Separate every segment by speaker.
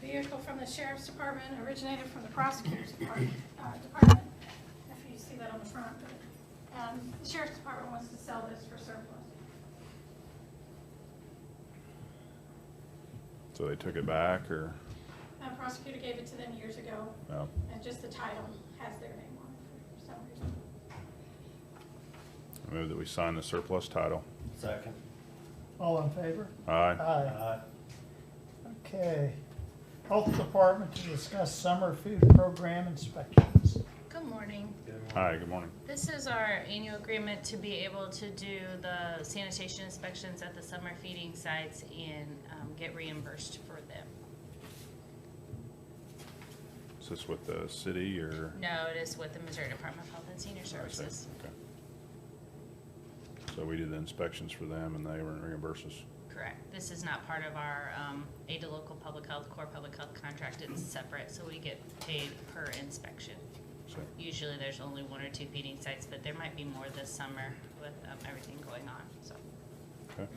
Speaker 1: vehicle from the sheriff's department originated from the prosecutor's department. uh, department, If you see that on the front, but, um, the sheriff's department wants to sell this for surplus.
Speaker 2: So they took it back or,
Speaker 1: Uh, prosecutor gave it to them years ago,
Speaker 2: no?
Speaker 1: and just the title has their name on it for some reason.
Speaker 2: I move that we sign the surplus title.
Speaker 3: Second.
Speaker 4: All in favor?
Speaker 2: Aye.
Speaker 4: Aye.
Speaker 3: Aye.
Speaker 4: Okay. Health Department to discuss summer food program inspections.
Speaker 5: Good morning.
Speaker 3: Good one.
Speaker 2: Hi, good morning.
Speaker 5: This is our annual agreement to be able to do the sanitation inspections at the summer feeding sites and um, get reimbursed for them.
Speaker 2: Is this with the city or?
Speaker 5: No, it is with the Missouri Department of Health and Senior
Speaker 2: I see.
Speaker 5: Services.
Speaker 2: Okay. So we did the inspections for them and they were reimbursed us.
Speaker 5: Correct. This is not part of our um, aid to local public health, core public health contract. It's separate, so we get paid per inspection.
Speaker 2: So,
Speaker 5: Usually, there's only one or two feeding sites, but there might be more this summer with um, everything going on, so.
Speaker 2: okay.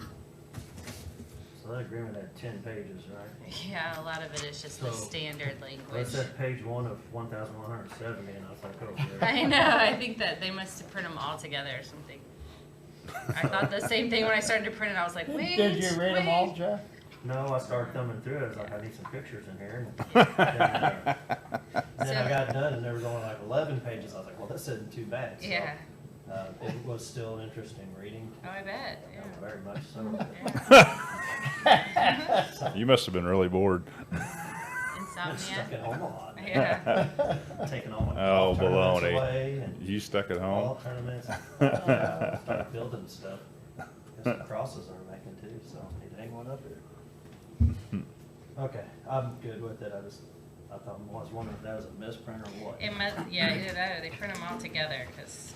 Speaker 3: So that agreement had ten pages, right?
Speaker 5: Yeah, a lot of it is just the
Speaker 3: So,
Speaker 5: standard
Speaker 3: Well, it
Speaker 5: language.
Speaker 3: said page one of one thousand one hundred seventy, and I was like, oh,
Speaker 5: I
Speaker 3: yeah.
Speaker 5: know. I think that they must have printed them all together or something. I thought the same thing when I started to print it. I was like, wait,
Speaker 4: Did you read them all,
Speaker 5: wait."
Speaker 4: Jeff?
Speaker 3: No, I started thumbing through it, I was like, I need some pictures in here. and- Then I
Speaker 5: So-
Speaker 3: got done, and there was only like eleven pages, I was like, well, this isn't too bad. So,
Speaker 5: Yeah.
Speaker 3: Uh, it was still interesting reading,
Speaker 5: Oh, I bet.
Speaker 3: uh,
Speaker 5: Yeah.
Speaker 3: very much so.
Speaker 2: You must have been really bored.
Speaker 3: Stuck
Speaker 5: Insomnia.
Speaker 3: at home a lot,
Speaker 5: Yeah.
Speaker 3: taking all my
Speaker 2: Oh,
Speaker 3: golf tournaments
Speaker 2: baloney.
Speaker 3: away, and
Speaker 2: You stuck at home?
Speaker 3: golf tournaments, uh, started building stuff. There's some crosses I'm making too, so I need to hang one up here. Okay, I'm good with it, I just, I thought, I was wondering if that was a misprint or what.
Speaker 5: It must. Yeah, either that or they print them all together because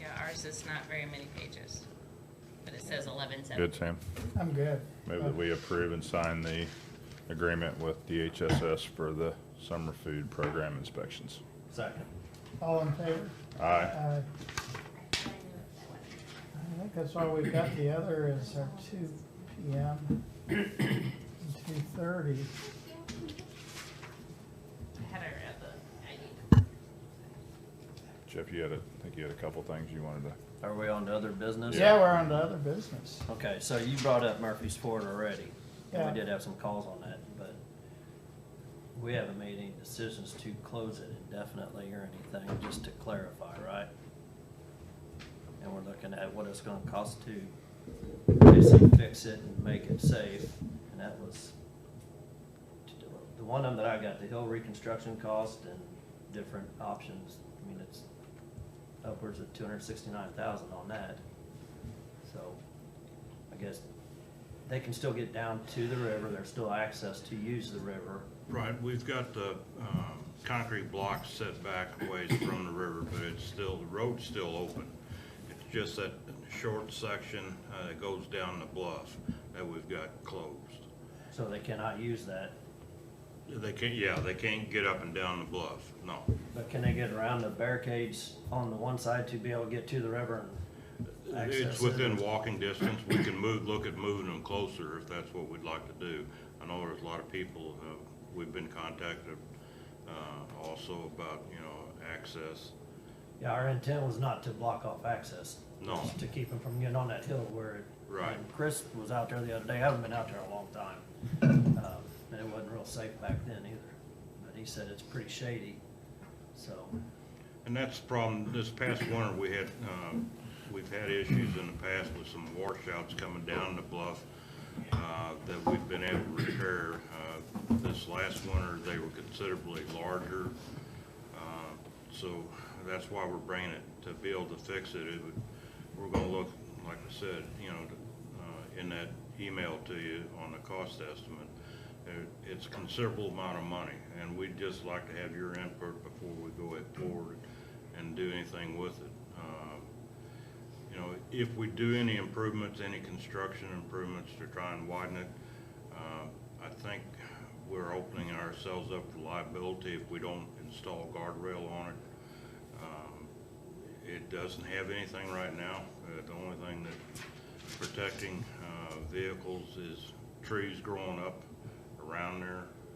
Speaker 5: yeah, ours is not very many pages, but it says eleven seven.
Speaker 2: Good, Sam.
Speaker 4: I'm good. Uh,
Speaker 2: Move that we approve and sign the agreement with DHSS for the summer food program inspections.
Speaker 3: Second,
Speaker 4: All in favor?
Speaker 2: Aye.
Speaker 4: Aye. I think that's all we've got. The other is our two PM, two thirty.
Speaker 5: I had her at the.
Speaker 2: Jeff, you had a, I think you had a couple things you wanted to,
Speaker 3: are we on to other business?
Speaker 4: Yeah, we're on to other business.
Speaker 3: Okay, so you brought up Murphy's Ford already, and
Speaker 4: Yeah.
Speaker 3: we did have some calls on that, but we haven't made any decisions to close it indefinitely or anything, just to clarify, right? And we're looking at what it's gonna cost to basically fix it and make it safe, and that was the one of them that I got, the hill reconstruction cost and different options, I mean, it's upwards of two hundred sixty-nine thousand on that. So, I guess they can still get down to the river, there's still access to use the river.
Speaker 6: Right, we've got the um, concrete blocks set back a ways from the river, but it's still, the road's still open. It's just that short section uh, that goes down the bluff that we've got closed.
Speaker 3: So they cannot use that,
Speaker 6: They can't, yeah, they can't get up and down the bluff, no.
Speaker 3: but can they get around the barricades on the one side to be able to get to the river and access
Speaker 6: It's
Speaker 3: it?
Speaker 6: within walking distance, we can move, look at moving them closer if that's what we'd like to do. I know there's a lot of people, uh, we've been contacted uh, also about, you know, access.
Speaker 3: Yeah, our intent was not to block off access.
Speaker 6: No.
Speaker 3: just To keep them from getting on that hill where. it-
Speaker 6: Right.
Speaker 3: and Chris was out there the other day, I haven't been out there in a long time, um, and it wasn't real safe back then either, but he said it's pretty shady, so.
Speaker 6: And that's the problem, this past winter, we had, um, we've had issues in the past with some washouts coming down the bluff uh, that we've been able to repair. Uh, This last winter, they were considerably larger, Uh, so that's why we're bringing it, to be able to fix it. It would, we're gonna look, like I said, you know, uh, in that email to you on the cost estimate, it- it's a considerable amount of money, and we'd just like to have your input before we go it forward and do anything with it. Um, You know, if we do any improvements, any construction improvements to try and widen it, uh, I think we're opening ourselves up for liability if we don't install guardrail on it. Um, It doesn't have anything right now. Uh, The only thing that protecting uh, vehicles is trees growing up around there.